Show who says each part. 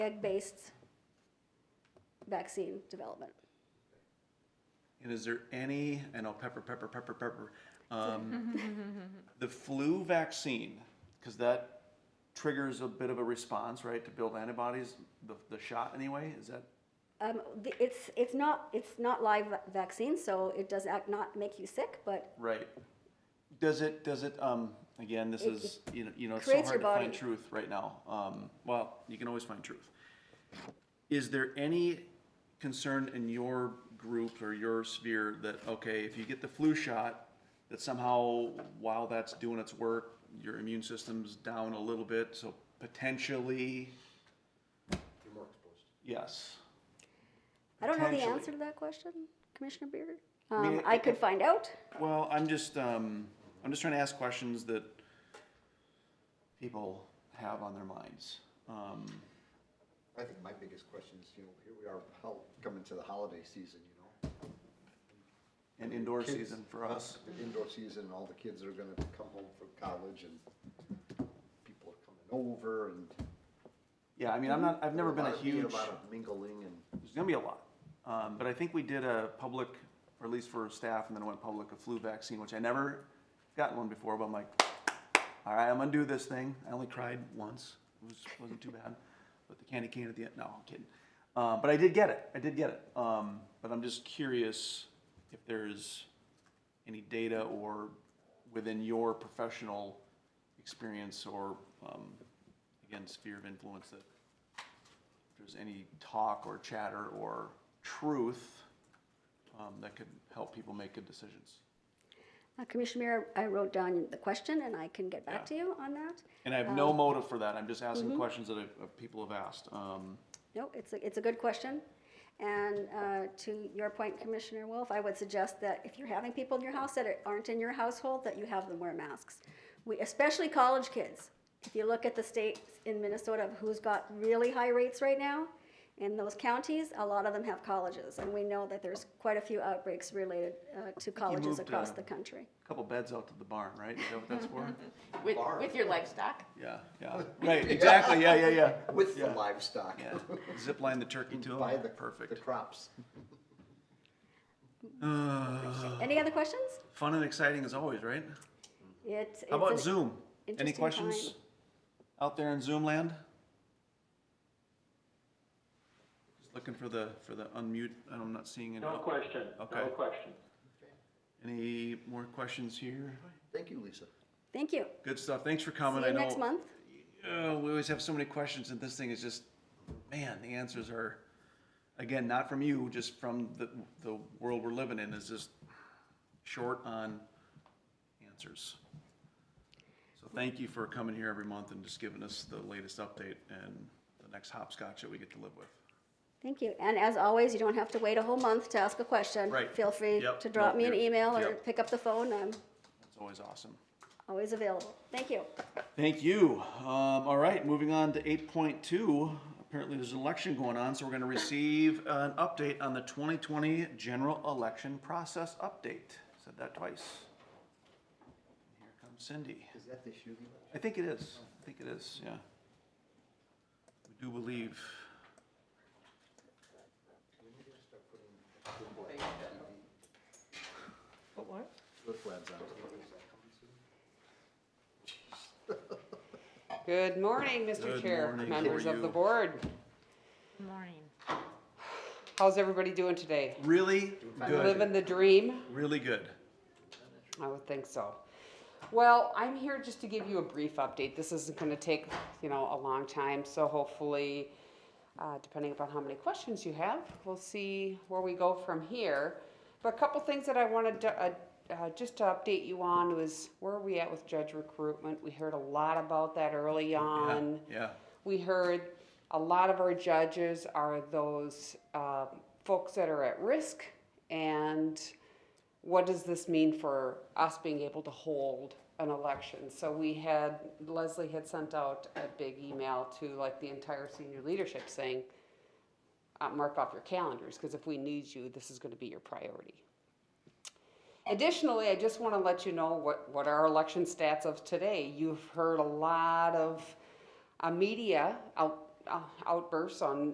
Speaker 1: egg-based vaccine development.
Speaker 2: And is there any, I know pepper, pepper, pepper, pepper, um, the flu vaccine, because that triggers a bit of a response, right, to build antibodies, the, the shot anyway, is that?
Speaker 1: Um, the- it's, it's not, it's not live va- vaccine, so it does act- not make you sick, but
Speaker 2: Right. Does it, does it, um, again, this
Speaker 1: It-
Speaker 2: is, you know, you know, it's so
Speaker 1: creates
Speaker 2: hard to
Speaker 1: your
Speaker 2: find
Speaker 1: body.
Speaker 2: truth right now. Um, well, you can always find truth. Is there any concern in your group or your sphere that, okay, if you get the flu shot, that somehow while that's doing its work, your immune system's down a little bit, so potentially,
Speaker 3: You're more exposed.
Speaker 2: yes.
Speaker 1: I don't know the
Speaker 2: Potentially.
Speaker 1: answer to that question, Commissioner Beer.
Speaker 2: I mean,
Speaker 1: Um,
Speaker 2: it-
Speaker 1: I could
Speaker 2: it-
Speaker 1: find out.
Speaker 2: Well, I'm just, um, I'm just trying to ask questions that people have on their minds. Um,
Speaker 3: I think my biggest question is, you know, here we are, how, coming to the holiday season, you know?
Speaker 2: and indoor
Speaker 3: Kids-
Speaker 2: season for us.
Speaker 3: The indoor season, all the kids are gonna come home from college and people are coming over and.
Speaker 2: Yeah, I mean, I'm not, I've never been a
Speaker 3: lot of need,
Speaker 2: huge,
Speaker 3: lot of mingling and,
Speaker 2: there's gonna be a lot. Um, but I think we did a public, or at least for staff, and then it went public, a flu vaccine, which I never gotten one before, but I'm like, all right, I'm gonna do this thing. I only cried once. It was, wasn't too bad. But the candy cane at the end, no, I'm kidding. Uh, but I did get it. I did get it. Um, but I'm just curious if there's any data or within your professional experience or, um, again, sphere of influence that if there's any talk or chatter or truth, um, that could help people make good decisions.
Speaker 1: Uh, Commissioner Beer, I wrote down the question and I can get
Speaker 2: Yeah.
Speaker 1: back to you on that.
Speaker 2: And I have no motive for that. I'm just
Speaker 1: Mm-hmm.
Speaker 2: asking questions that I've- uh, people have asked. Um,
Speaker 1: No, it's a, it's a good question. And uh, to your point, Commissioner Wolf, I would suggest that if you're having people in your house that aren't in your household, that you have them wear masks. We, especially college kids. If you look at the states in Minnesota of who's got really high rates right now, in those counties, a lot of them have colleges. And we know that there's quite a few outbreaks related uh, to colleges
Speaker 2: moved,
Speaker 1: across
Speaker 2: uh,
Speaker 1: the country.
Speaker 2: Couple beds out to the barn, right? Is that what that's for?
Speaker 4: With, with your livestock?
Speaker 2: Yeah, yeah, right, exactly, yeah, yeah, yeah.
Speaker 3: with the
Speaker 2: Yeah.
Speaker 3: livestock.
Speaker 2: Yeah, zip line the turkey to
Speaker 3: Buy the,
Speaker 2: them,
Speaker 3: the
Speaker 2: perfect.
Speaker 3: crops.
Speaker 2: Uh,
Speaker 1: Any other questions?
Speaker 2: Fun and exciting as always, right?
Speaker 1: It's, it's
Speaker 2: How about
Speaker 1: an-
Speaker 2: Zoom? Any
Speaker 1: interesting
Speaker 2: questions
Speaker 1: time.
Speaker 2: out there in Zoom land? Just Looking for the, for the unmute, I'm not seeing any.
Speaker 5: No question, no
Speaker 2: Okay.
Speaker 5: question.
Speaker 2: Any more questions here?
Speaker 3: Thank you, Lisa.
Speaker 1: Thank you.
Speaker 2: Good stuff, thanks for coming.
Speaker 1: See you
Speaker 2: I
Speaker 1: next
Speaker 2: know-
Speaker 1: month.
Speaker 2: Oh, we always have so many questions, and this thing is just, man, the answers are, again, not from you, just from the, the world we're living in is just short on answers. So thank you for coming here every month and just giving us the latest update and the next hopscotch that we get to live with.
Speaker 1: Thank you. And as always, you don't have to wait a whole month to ask a question.
Speaker 2: Right.
Speaker 1: Feel free
Speaker 2: Yep.
Speaker 1: to drop
Speaker 2: Nope,
Speaker 1: me an
Speaker 2: you're-
Speaker 1: email or
Speaker 2: yep.
Speaker 1: pick up the phone. I'm
Speaker 2: It's always awesome.
Speaker 1: always available. Thank you.
Speaker 2: Thank you. Um, all right, moving on to eight point two. Apparently there's an election going on, so we're gonna receive an update on the twenty twenty general election process update. Said that twice. Here comes Cindy.
Speaker 3: Is that the shooting?
Speaker 2: I think it is. I think it is, yeah. We do believe.
Speaker 4: What, what?
Speaker 3: Flip flaps on.
Speaker 6: Good morning, Mr.
Speaker 2: Good
Speaker 6: Chair,
Speaker 2: morning. How
Speaker 6: members
Speaker 2: are
Speaker 6: of the
Speaker 2: you?
Speaker 6: board.
Speaker 4: Morning.
Speaker 6: How's everybody doing today?
Speaker 2: Really
Speaker 6: Living
Speaker 2: good,
Speaker 6: the dream?
Speaker 2: really good.
Speaker 6: I would think so. Well, I'm here just to give you a brief update. This isn't going to take, you know, a long time, so hopefully, uh, depending upon how many questions you have, we'll see where we go from here. But a couple things that I wanted to, uh, uh, just to update you on was where are we at with judge recruitment? We heard a lot about that early on.
Speaker 2: Yeah,
Speaker 6: We heard a lot of our judges are those um, folks that are at risk, and what does this mean for us being able to hold an election? So we had Leslie had sent out a big email to like the entire senior leadership saying, uh, "Mark off your calendars because if we need you, this is going to be your priority." Additionally, I just want to let you know what, what our election stats of today. You've heard a lot of uh, media out uh, outbursts on